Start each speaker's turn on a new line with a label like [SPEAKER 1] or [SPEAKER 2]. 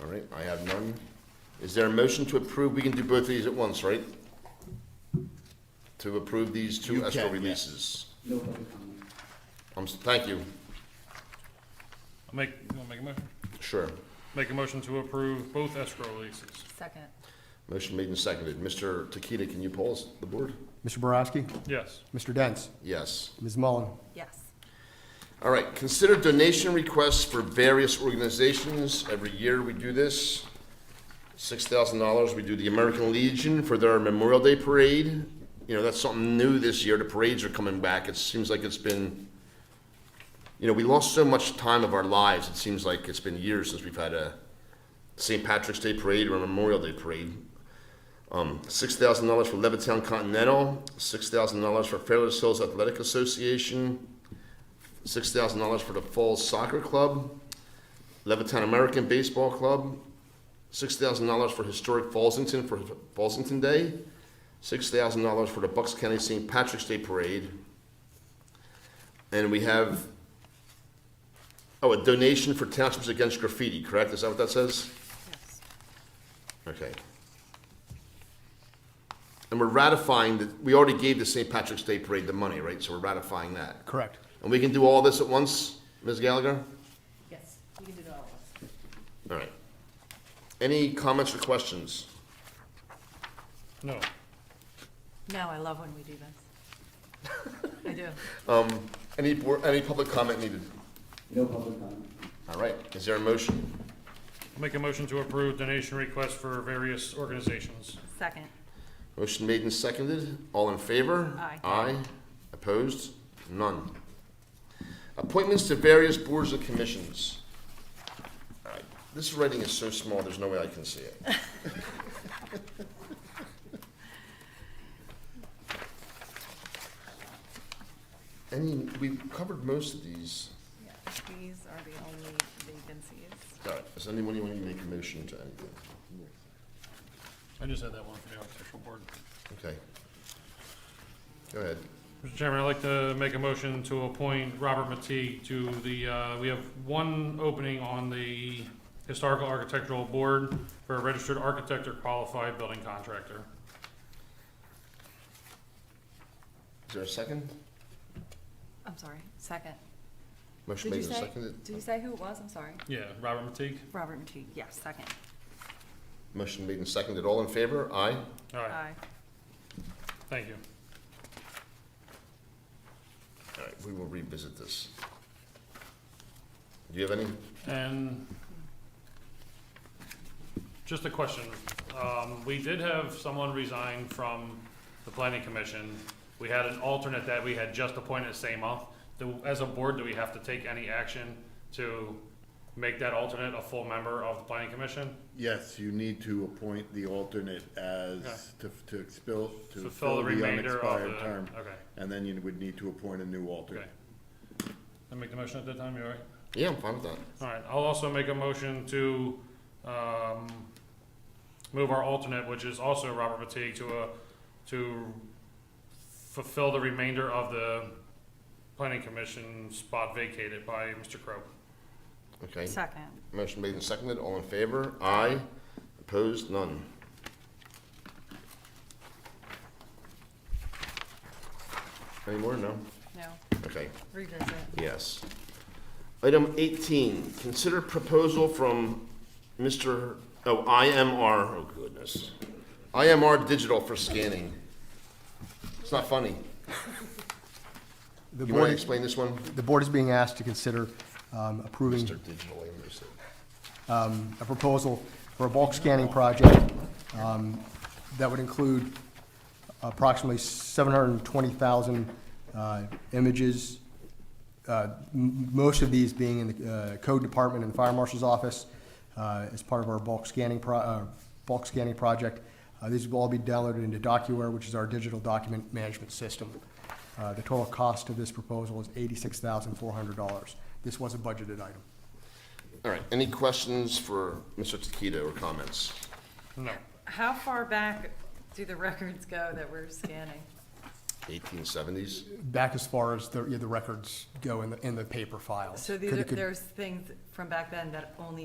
[SPEAKER 1] All right, I have none. Is there a motion to approve? We can do both of these at once, right? To approve these two escrow releases.
[SPEAKER 2] No public comment.
[SPEAKER 1] I'm, s- thank you.
[SPEAKER 3] I'll make, you wanna make a motion?
[SPEAKER 1] Sure.
[SPEAKER 3] Make a motion to approve both escrow releases.
[SPEAKER 4] Second.
[SPEAKER 1] Motion made and seconded. Mr. Takita, can you pause the board?
[SPEAKER 5] Mr. Borowski,
[SPEAKER 3] Yes.
[SPEAKER 5] Mr. Dents,
[SPEAKER 1] Yes.
[SPEAKER 5] Ms. Mullen,
[SPEAKER 4] Yes.
[SPEAKER 1] All right, consider donation requests for various organizations. Every year we do this. Six thousand dollars, we do the American Legion for their Memorial Day Parade. You know, that's something new this year. The parades are coming back. It seems like it's been, you know, we lost so much time of our lives. It seems like it's been years since we've had a St. Patrick's Day Parade or a Memorial Day Parade. Um, six thousand dollars for Levittown Continental, six thousand dollars for Fairless Hills Athletic Association, six thousand dollars for the Falls Soccer Club, Levittown American Baseball Club, six thousand dollars for historic Fallsington for Fallsington Day, six thousand dollars for the Bucks County St. Patrick's Day Parade, and we have oh a donation for Townships Against Graffiti. Correct? Is that what that says?
[SPEAKER 4] Yes.
[SPEAKER 1] Okay. And we're ratifying that we already gave the St. Patrick's Day Parade the money, right? So we're ratifying that.
[SPEAKER 5] correct.
[SPEAKER 1] And we can do all this at once, Ms. Gallagher?
[SPEAKER 4] Yes, you can do it all at once.
[SPEAKER 1] All right. Any comments or questions?
[SPEAKER 3] No.
[SPEAKER 4] No, I love when we do this. I do.
[SPEAKER 1] Any, board- any public comment needed?
[SPEAKER 2] No public comment.
[SPEAKER 1] All right, is there a motion?
[SPEAKER 3] I'll make a motion to approve donation requests for various organizations.
[SPEAKER 4] Second.
[SPEAKER 1] Motion made and seconded, all in favor?
[SPEAKER 4] Aye.
[SPEAKER 1] Aye, opposed? None. Appointments to various boards and commissions. All right, This writing is so small, there's no way I can see it. Any, we covered most of these.
[SPEAKER 4] Yeah, These are the only vacancies.
[SPEAKER 1] All right, Uh, does anyone want to make a motion to anything?
[SPEAKER 3] I just had that one for the architectural board.
[SPEAKER 1] Okay. Go ahead.
[SPEAKER 3] Mr. Chairman, I'd like to make a motion to appoint Robert Matee to the, uh, we have one opening on the Historical Architectural Board for a registered architect or qualified building contractor.
[SPEAKER 1] Is there a second?
[SPEAKER 4] I'm sorry, second.
[SPEAKER 1] Motion
[SPEAKER 4] Did you
[SPEAKER 1] made and
[SPEAKER 4] say,
[SPEAKER 1] seconded.
[SPEAKER 4] did you say who it was? I'm sorry.
[SPEAKER 3] Yeah, Robert Matee?
[SPEAKER 4] Robert Matee, yes, second.
[SPEAKER 1] Motion made and seconded. All in favor? Aye.
[SPEAKER 3] All right,
[SPEAKER 4] Aye.
[SPEAKER 3] thank you.
[SPEAKER 1] All right, we will revisit this. Do you have any?
[SPEAKER 3] And just a question. Um, we did have someone resign from the planning commission. We had an alternate that we had just appointed the same month. Do, as a board, do we have to take any action to make that alternate a full member of the planning commission?
[SPEAKER 6] Yes, you need to appoint the alternate
[SPEAKER 3] Okay.
[SPEAKER 6] as, to, to expel, to
[SPEAKER 3] Fulfill the
[SPEAKER 6] fill the
[SPEAKER 3] remainder of
[SPEAKER 6] unexpired
[SPEAKER 3] the,
[SPEAKER 6] term.
[SPEAKER 3] okay,
[SPEAKER 6] And then you would need to appoint a new
[SPEAKER 3] okay.
[SPEAKER 6] alternate.
[SPEAKER 3] I make the motion at that time, you all right?
[SPEAKER 1] Yeah, I'm fine with that.
[SPEAKER 3] All right, I'll also make a motion to, um, move our alternate, which is also Robert Matee, to a, to fulfill the remainder of the planning commission spot vacated by Mr. Crowe.
[SPEAKER 1] Okay.
[SPEAKER 4] Second.
[SPEAKER 1] Motion made and seconded. All in favor? Aye. Opposed? None. Any more? No?
[SPEAKER 4] No,
[SPEAKER 1] Okay.
[SPEAKER 4] revisit.
[SPEAKER 1] Yes. Item eighteen, consider proposal from Mr., oh, IMR, oh goodness. IMR Digital for scanning. It's not funny.
[SPEAKER 5] The
[SPEAKER 1] You want to
[SPEAKER 5] board,
[SPEAKER 1] explain this one?
[SPEAKER 5] the board is being asked to consider um, approving
[SPEAKER 1] Mr. Digital, I understand.
[SPEAKER 5] a proposal for a bulk scanning project um, that would include approximately 720,000 uh, images, uh, m- most of these being in the uh, code department and the fire marshal's office uh, as part of our bulk scanning, pro- uh, bulk scanning project. Uh, These will all be downloaded into DocuWare, which is our digital document management system. Uh, The total cost of this proposal is $86,400. This was a budgeted item.
[SPEAKER 1] All right, any questions for Mr. Takita or comments?
[SPEAKER 3] No,
[SPEAKER 4] How far back do the records go that we're scanning?
[SPEAKER 1] Eighteen seventies?
[SPEAKER 5] back as far as the, yeah, the records go in the, in the paper files.
[SPEAKER 4] So these
[SPEAKER 5] Could-
[SPEAKER 4] are,
[SPEAKER 5] could-
[SPEAKER 4] there's things from back then that only